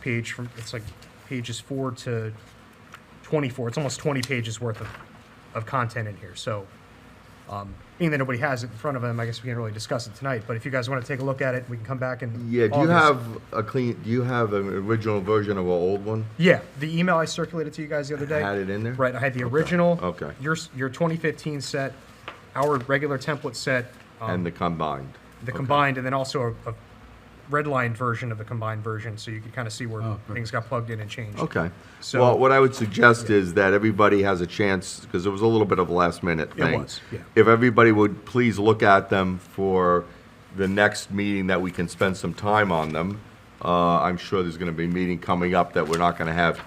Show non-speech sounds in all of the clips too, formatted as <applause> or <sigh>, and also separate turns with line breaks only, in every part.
page from, it's like pages four to 24. It's almost 20 pages worth of, of content in here. So, um, being that nobody has it in front of them, I guess we can't really discuss it tonight. But if you guys want to take a look at it, we can come back and.
Yeah, do you have a clean, do you have an original version of our old one?
Yeah, the email I circulated to you guys the other day.
Had it in there?
Right, I had the original.
Okay.
Your, s- your 2015 set, our regular template set, um,
And the combined?
the
Okay.
combined, and then also a, a redlined version of the combined version, so you could kind of see where
Oh, good.
things got plugged in and changed.
Okay.
So-
Well, what I would suggest is that everybody has a chance, because it was a little bit of a last minute thing.
was, yeah.
If everybody would please look at them for the next meeting that we can spend some time on them. Uh, I'm sure there's gonna be a meeting coming up that we're not gonna have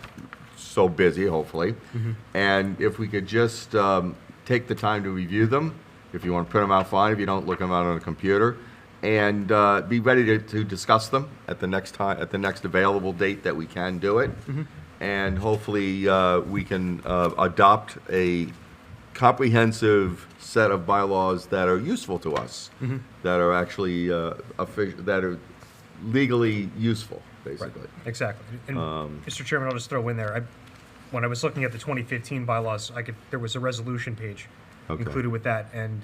so busy, hopefully.
Mm-hmm.
And if we could just, um, take the time to review them, if you wanna print them out, fine, if you don't, look them out on a computer. And, uh, be ready to, to discuss them at the next time, at the next available date that we can do it. And hopefully, uh, we can, uh, adopt a comprehensive set of bylaws that are useful to us, that are actually, uh, offi- that are legally useful, basically.
Exactly. And
Um,
Mr. Chairman, I'll just throw in there, I, when I was looking at the 2015 bylaws, I could, there was a resolution page
Okay.
included with that, and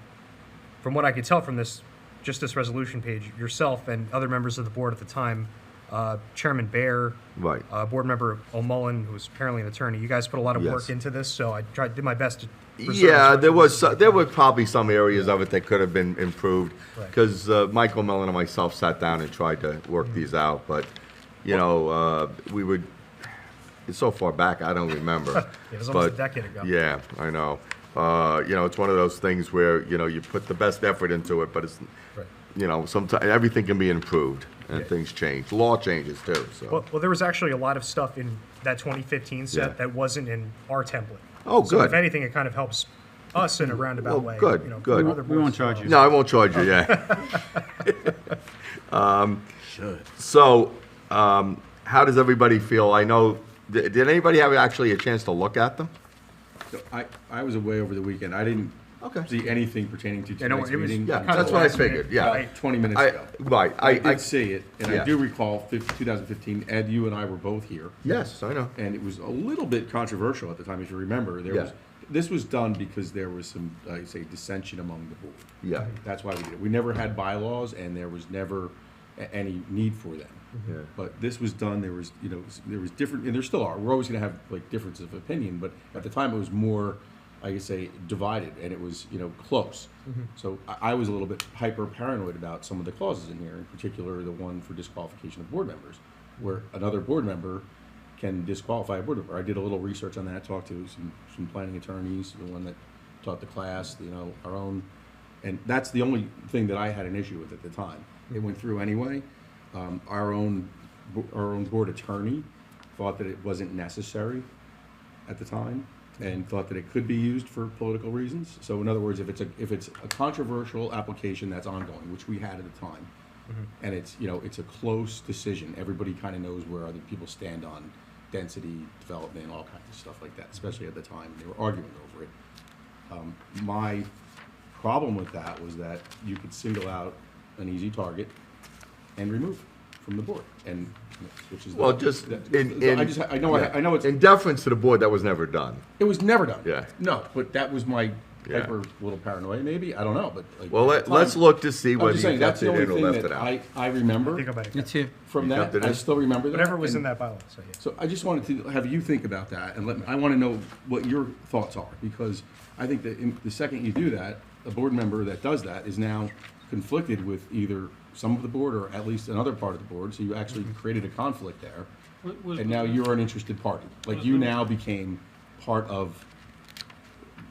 from what I could tell from this, just this resolution page, yourself and other members of the board at the time, uh, Chairman Baer,
Right.
uh, Board Member O'Mullen, who was apparently an attorney, you guys put a lot of work
Yes.
into this, so I tried, did my best to. preserve as
Yeah,
much
there
of
was,
this-
so- there were probably some areas of it that could have been improved,
Right.
because Michael Mellon and myself sat down and tried to work these
Mm-hmm.
out, but, you know, uh, we would, it's so far back, I don't remember.
<laughs> It was almost a
but-
decade ago.
Yeah, I know. Uh, You know, it's one of those things where, you know, you put the best effort into it, but it's,
Right.
you know, sometimes, everything can be improved, and
Yeah.
things change. Law changes too, so.
Well, well, there was actually a lot of stuff in that 2015 set
Yeah.
that wasn't in our template.
Oh,
So if
good.
anything, it kind of helps us in a roundabout
Well,
way.
good,
you know,
good.
for other
We
boards.
won't charge you.
No, I won't charge you, yeah. <laughs> Um,
Should.
So, um, how does everybody feel? I know, did did anybody have actually a chance to look at them?
So I, I was away over the weekend. I didn't
Okay.
see anything pertaining to
Yeah, no,
tonight's
it was-
meeting.
Yeah,
Kinda
that's what I
last minute.
figured, yeah.
I-
About Twenty minutes
I-
ago.
Right, I,
I
I.
did see it, and
yeah.
I do recall fif- 2015, Ed, you and I were both here.
Yes, I know.
And it was a little bit controversial at the time, if you remember. There
Yeah.
was, this was done because there was some, I say, dissension among the board.
Yeah.
That's why we did it. We never had bylaws, and there was never a- any need for them.
Mm-hmm. Yeah.
But this was done, there was, you know, s- there was different, and there still are, we're always gonna have like differences of opinion, but at the time it was more, I could say, divided, and it was, you know, close.
Mm-hmm.
So I, I was a little bit hyper paranoid about some of the clauses in here, in particular, the one for disqualification of board members, where another board member can disqualify a board member. I did a little research on that, talked to some, some planning attorneys, the one that taught the class, you know, our own. And that's the only thing that I had an issue with at the time. It went through anyway. Um, our own, bo- our own board attorney thought that it wasn't necessary at the time and thought that it could be used for political reasons. So in other words, if it's a, if it's a controversial application that's ongoing, which we had at the time, and it's, you know, it's a close decision, everybody kind of knows where other people stand on density, development, all kinds of stuff like that, especially at the time, they were arguing over it. Um, My problem with that was that you could single out an easy target and remove from the board, and, which is. the-
Well, just
that-
in,
so
in.
I just, I know, I I know it's.
In deference to the board, that was never done.
It was never done.
Yeah.
No, but that was my
Yeah.
hyper little paranoia, maybe. I don't know, but. like,
Well,
at
let,
the
let's
time-
look to see
I'm
whether
just
you
saying, that's
kept
the
it
only
in or
thing
left
that
it out.
I, I
Think
remember
about
Me
it.
too.
You
from that.
kept it
I
in?
still remember that.
Whatever was in
and-
that bylaw, so yeah.
So I just wanted to have you think about that and let, me- I want to know what your thoughts are, because I think that in- the second you do that, a board member that does that is now conflicted with either some of the board or at least another part of the board, so you actually created a conflict there.
What was-
And now you're an interested party, like you now became part of,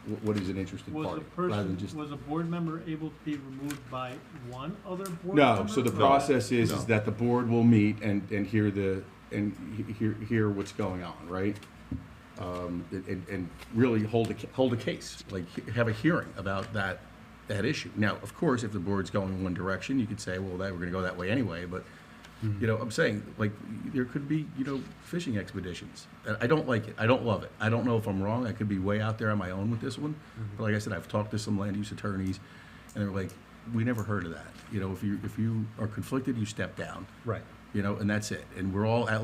wh- what is an interested
Was a
party? rather than just
person, was a board member able to be removed by one other board member?
No, so the
or-
process is,
No.
is that the board will meet and, and hear the, and he- hear, hear what's going on, right? Um, and- and, and really hold a, ca- hold a case, like have a hearing about that, that issue. Now, of course, if the board's going in one direction, you could say, well, that, we're gonna go that way anyway, but, you know, I'm saying, like, there could be, you know, fishing expeditions. And I don't like it, I don't love it, I don't know if I'm wrong, I could be way out there on my own with this one. But like I said, I've talked to some land use attorneys, and they're like, we never heard of that. You know, if you, if you are conflicted, you step down.
Right.
You know, and that's it. And we're all at